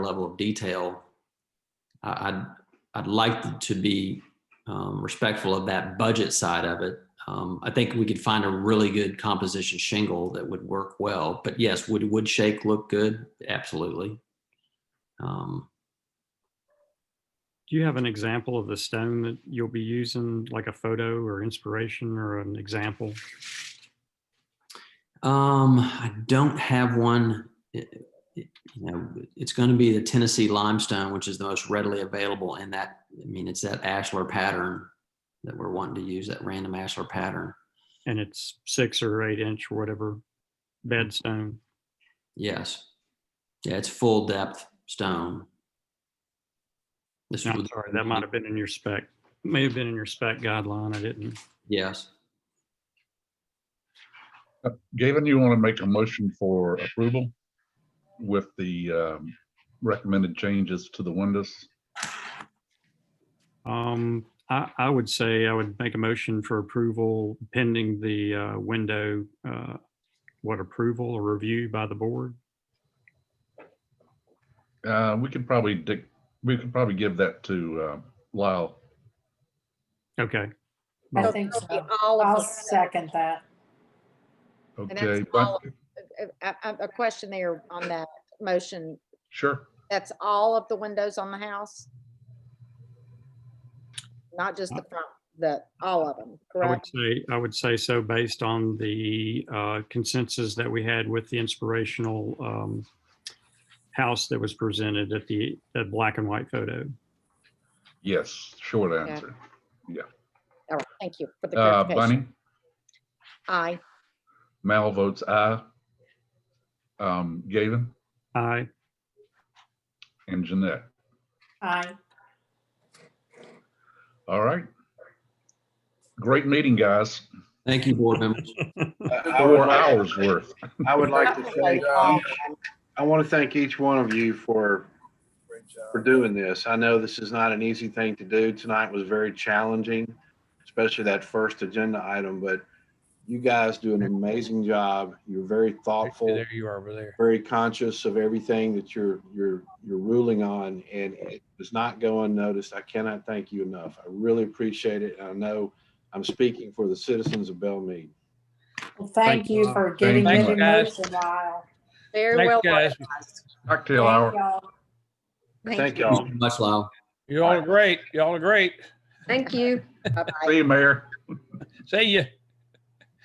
level of detail. I- I'd, I'd like to be um, respectful of that budget side of it. Um, I think we could find a really good composition shingle that would work well, but yes, would wood shake look good? Absolutely. Um, Do you have an example of the stone that you'll be using, like a photo or inspiration or an example? Um, I don't have one. It- it- You know, it's going to be the Tennessee limestone, which is the most readily available in that, I mean, it's that ashlar pattern that we're wanting to use, that random ashlar pattern. And it's six or eight inch or whatever bed stone. Yes. Yeah, it's full depth stone. This No, I'm would- sorry, that might have been in your spec, may have been in your spec guideline. I didn't. Yes. Gavin, you want to make a motion for approval with the um, recommended changes to the windows? Um, I, I would say I would make a motion for approval pending the uh, window, uh, what approval or review by the board? Uh, We could probably, dic- we could probably give that to uh, Lyle. Okay. I So think that'll be so. All of I'll the- second that. that's Okay, all. but- a- Uh, a a question there on that motion. sure. That's all of the windows on the house? Not just the front, the, all of them, I would correct? say, I would say so based on the uh, consensus that we had with the inspirational um, house that was presented at the, that black and white photo. Yes, short answer. All right, thank you for the Uh, clarification. Bunny, Aye, Mal votes aye. Um, Gavin Aye, and Jeanette. Aye. All right. Great meeting, guys. Thank you, board members. I would Four like, hours worth. I would like to thank, each- I want to thank each one of you for, for doing this. I know this is not an easy thing to do. Tonight was very challenging, especially that first agenda item, but you guys do an amazing job. You're very thoughtful, There you are over there. very conscious of everything that you're, you're, you're ruling on, and it does not go unnoticed. I cannot thank you enough. I really appreciate it. and I know I'm speaking for the citizens of Bell Mead. Well, Thank you you. for getting Thank it you, in guys. motion, Lyle. very well. Thanks, guys. organized. Cocktail Thank hour. y'all. Thank you. y'all. Much love. You all are great. You all are great. Thank you. Bye-bye. See you, Mayor. See ya.